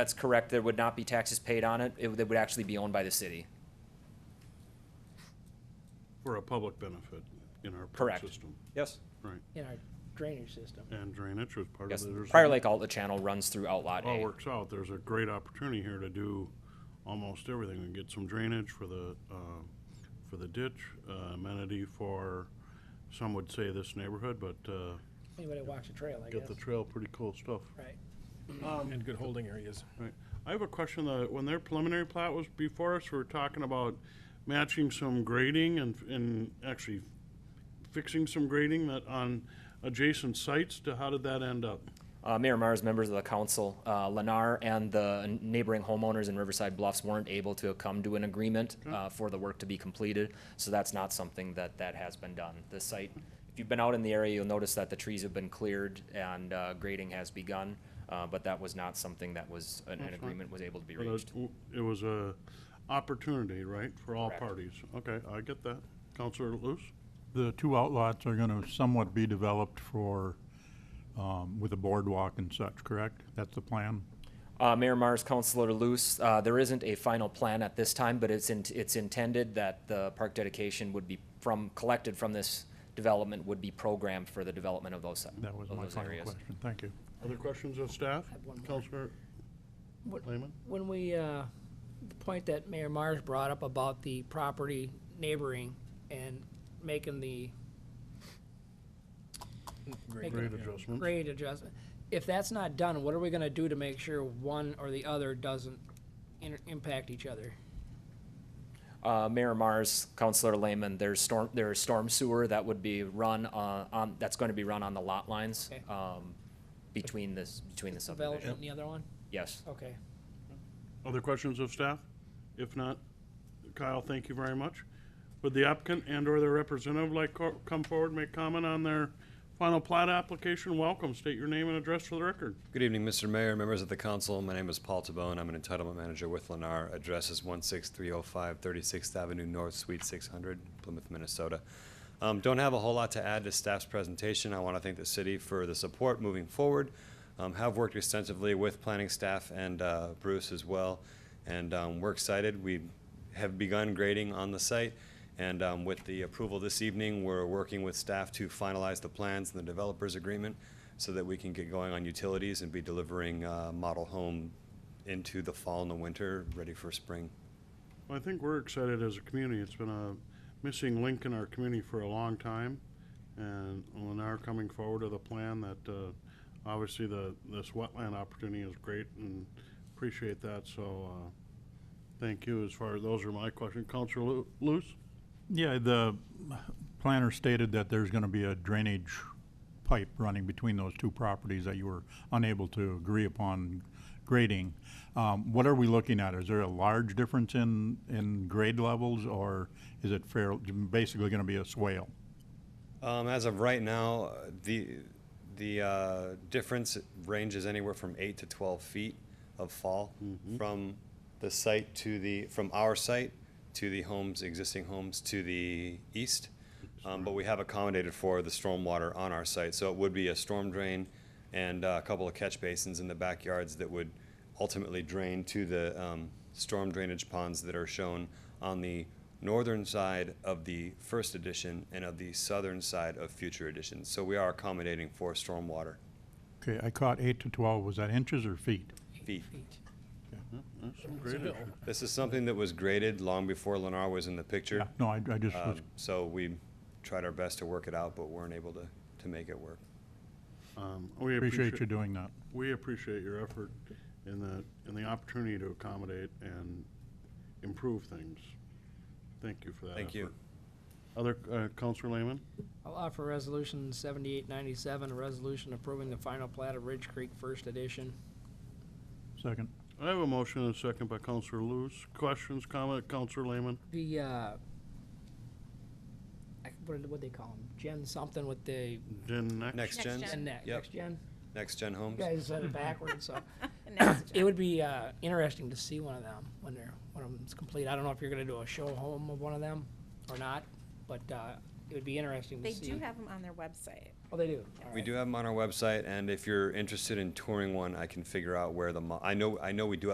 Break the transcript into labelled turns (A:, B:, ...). A: That's correct. There would not be taxes paid on it. It would, it would actually be owned by the city.
B: For a public benefit in our park
A: Correct.
B: system.
A: Yes.
B: Right,
C: in our drainage system.
B: and drainage was part of
A: Yes.
B: it. There's
A: Prior
B: a- Oh,
A: Lake Outlet Channel runs through Outlot
B: All
A: A.
B: works out, there's a great opportunity here to do almost everything. We can get some drainage for the, uh, for the ditch, uh, amenity for, some would say this neighborhood, but uh,
C: Anybody that walks a trail, I
B: get the
C: guess.
B: trail, pretty cool stuff.
C: Right.
D: And good holding areas.
B: Right. I have a question, uh, when their preliminary plat was before us, we were talking about matching some grading and, and actually fixing some grading that on adjacent sites, to, how did that end up?
A: Uh, Mayor Mars, members of the council, uh, Lennar and the neighboring homeowners in Riverside Bluffs weren't able to come to an agreement uh, for the work to be completed, so that's not something that, that has been done. The site, if you've been out in the area, you'll notice that the trees have been cleared and uh, grading has begun, uh, but that was not something that was, an- an agreement was able to be
B: But
A: reached.
B: it- It was a opportunity, right, for all
A: Correct.
B: parties? Okay, I get that. Counselor Luce?
E: The two outlots are gonna somewhat be developed for, um, with a boardwalk and such, correct? That's the plan?
A: Uh, Mayor Mars, Councilor Luce, uh, there isn't a final plan at this time, but it's in, it's intended that the park dedication would be from, collected from this development would be programmed for the development of those,
E: That was
A: of
E: my
A: those
E: final
A: areas.
E: question. Thank you.
B: Other questions of staff?
C: have one more.
B: Counselor
C: What-
B: Lehman?
C: When we, uh, the point that Mayor Mars brought up about the property neighboring and making the
D: Great.
C: Make
B: Grade
C: Yeah.
B: adjustments?
C: grade adjustment, if that's not done, what are we gonna do to make sure one or the other doesn't inter- impact each other?
A: Uh, Mayor Mars, Councilor Lehman, there's storm, there's storm sewer that would be run, uh, on, that's going to be run on the lot lines,
C: Okay.
A: um, between this, between the
C: Development
A: subdivision.
C: and the other one?
A: Yes.
C: Okay.
B: Other questions of staff? If not, Kyle, thank you very much. Would the applicant and/or their representative like co- come forward, make comment on their final plat application? Welcome, state your name and address for the record.
F: Good evening, Mr. Mayor, members of the council. My name is Paul Tabone. I'm an entitlement manager with Lennar. Address is 16305 36th oh Avenue North, Suite 600, Plymouth, Minnesota. Um, Don't have a whole lot to add to staff's presentation. I want to thank the city for the support moving forward. Um, Have worked extensively with planning staff and uh, Bruce as well, and um, we're excited. We have begun grading on the site, and um, with the approval this evening, we're working with staff to finalize the plans and the developers' agreement so that we can get going on utilities and be delivering uh, model home into the fall and the winter, ready for spring.
B: Well, I think we're excited as a community. It's been a missing link in our community for a long time. And Lennar coming forward with a plan that, uh, obviously the, this wetland opportunity is great and appreciate that, so, uh, thank you. As far, as those are my questions. Counselor Lu- Luce?
E: Yeah, the planner stated that there's gonna be a drainage pipe running between those two properties that you were unable to agree upon grading. Um, what are we looking at? Is there a large difference in, in grade levels, or is it fair, basically gonna be a swale?
F: Um, as of right now, uh, the the uh, difference ranges anywhere from eight to twelve feet of fall from the site to the from our site to the homes existing homes to the east. Um, but we have accommodated for the storm water on our site, so it would be a storm drain and uh, a couple of catch basins in the backyards that would ultimately drain to the um, storm drainage ponds that are shown on the northern side of the first edition and of the southern side of future editions. So we are accommodating for stormwater
E: Okay, I caught eight to twelve, was that inches or feet?
F: feet.
B: Great.
F: This is something that was graded long before Lennar was in the picture.
E: No, I, I just was
F: Um, so we tried our best to work it out, but weren't able to, to make it work.
B: Um, we
E: Appreciate you doing that.
B: We appreciate your effort and the, and the opportunity to accommodate and improve things. Thank you for that
F: Thank you.
B: effort. Other, uh, Counselor Lehman?
C: I'll offer resolution seventy-eight ninety-seven, a resolution approving the final plat of Ridge Creek First Edition.
E: Second.
B: I have a motion and a second by Counselor Lewis. Questions, comment, Counselor Lehman?
C: The, uh, I- what, what they call them, gen something with the,
B: Then next.
F: Next
G: gen.
F: gen,
C: gen next,
F: Yep.
C: next gen?
F: next gen homes.
C: You guys said it backwards, so.
G: Next
C: It would be, uh, interesting to see one of them when they're, when it's complete. I don't know if you're gonna do a show home of one of them or not, but, uh, it would be interesting to
G: They
C: see.
G: do have them on their website.
C: Oh, they do?
F: We do have them on our website, and if you're interested in touring one, I can figure out where the, mo- I know, I know we do